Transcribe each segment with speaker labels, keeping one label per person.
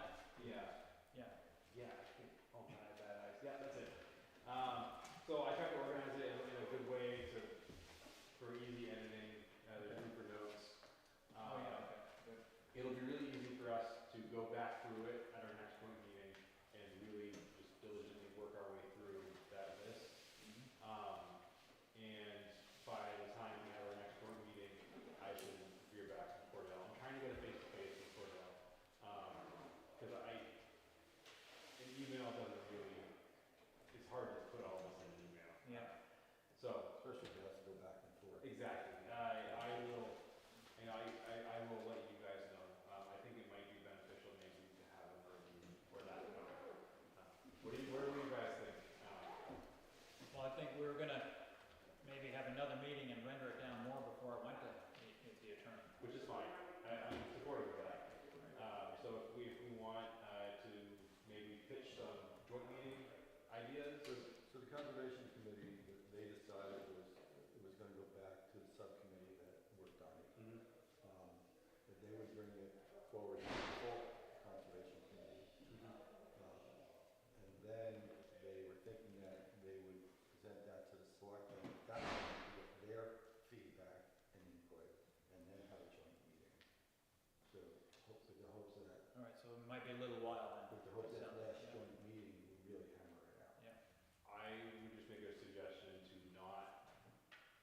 Speaker 1: Um, uh, Ah, Um, Um, um, Um,
Speaker 2: Oh,
Speaker 1: Um,
Speaker 2: think we were gonna maybe have another meeting and render it down more before it went to the, to the attorney.
Speaker 1: which is fine, I, I'm supportive of that. Um, so if we, if we want, uh, to maybe pitch some joint meeting ideas,
Speaker 3: So, so the conservation committee, that they decided was, it was gonna go back to the subcommittee that worked on it. Um, That they would bring it forward to the full conservation committee. Um, And then they were thinking that they would present that to the selectmen, that would get their feedback and input, and then have a joint meeting. So hopefully, the hopes that,
Speaker 2: All right, so it might be a little while then.
Speaker 3: with the hopes that
Speaker 2: Sounds-
Speaker 3: last
Speaker 2: yeah.
Speaker 3: joint meeting, we really hammer it out.
Speaker 1: I would just make a suggestion to not,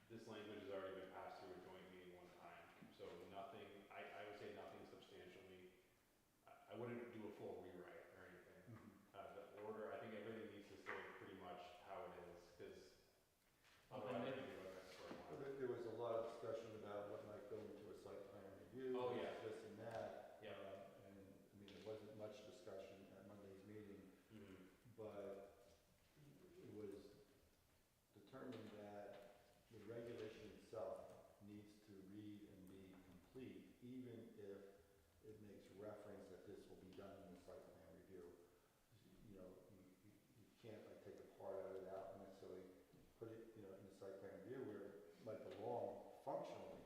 Speaker 1: this language has already been passed through a joint meeting one time, so nothing, I, I would say nothing substantially. I, I wouldn't do a full rewrite or anything.
Speaker 3: Mm-hmm.
Speaker 1: Uh, the order, I think everything needs to stay pretty much how it is, because otherwise I think we would have sort of-
Speaker 3: Well, There, there was a lot of discussion about what might go into a site plan review.
Speaker 1: Oh, yeah.
Speaker 3: This and that.
Speaker 1: Yeah.
Speaker 3: uh, And, I mean, there wasn't much discussion at Monday's meeting,
Speaker 1: Mhm.
Speaker 3: but it was determined that the regulation itself needs to read and be complete, even if it makes reference that this will be done in the site plan review. You know, you, you you can't like take a part of it out and necessarily put it, you know, in the site plan review where it might belong functionally.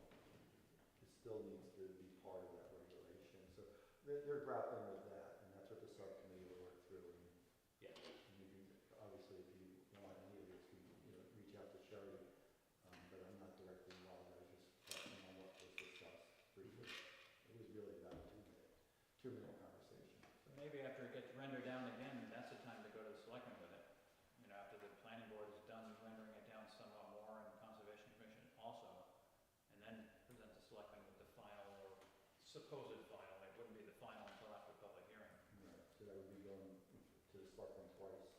Speaker 3: It still needs to be part of that regulation, so they're, they're grappling with that, and that's what the subcommittee will work through and
Speaker 1: Yeah.
Speaker 3: and you can, obviously, if you want any of this, you can, you know, reach out to Sherry, um, but I'm not directly involved, I was just talking on what was discussed briefly. It was really about a two-minute, two-minute conversation.
Speaker 2: So Maybe after it gets rendered down again, that's the time to go to the selectmen with it. You know, after the planning board is done rendering it down somewhat more and conservation commission also. And then present the selectmen with the final or supposed final, it wouldn't be the final until after public hearing.
Speaker 3: Right, So that would be going to the selectmen twice,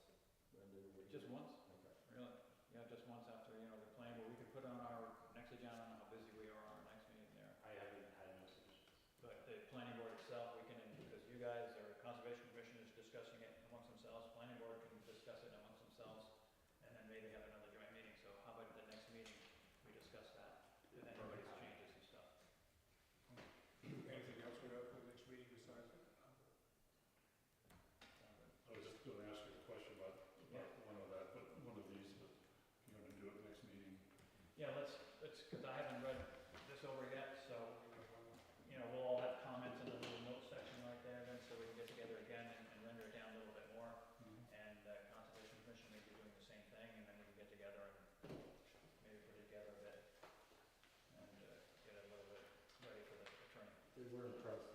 Speaker 3: and then we.
Speaker 2: Just once?
Speaker 3: Okay.
Speaker 2: Really? Yeah, just once after, you know, the plan, but we could put on our next agenda, on how busy we are on our next meeting there.
Speaker 1: I haven't had no suggestions.
Speaker 2: But the planning board itself, we can, because you guys or conservation commission is discussing it amongst themselves, planning board can discuss it amongst themselves, and then maybe have another joint meeting, so how about the next meeting, we discuss that, and everybody's changes and stuff.
Speaker 4: Anything else we have for the next meeting besides that?
Speaker 5: I was just gonna ask you a question about, about one of that, but one of these, but if you're gonna do it next meeting.
Speaker 2: Yeah, let's, let's, because I haven't read this over yet, so you know, we'll all have comments in the little note section right there, then, so we can get together again and, and render it down a little bit more. And uh, Conservation Commission may be doing the same thing, and then we can get together and maybe put it together a bit. And, uh, get it a little bit ready for the attorney.
Speaker 3: They were impressed
Speaker 2: Oh.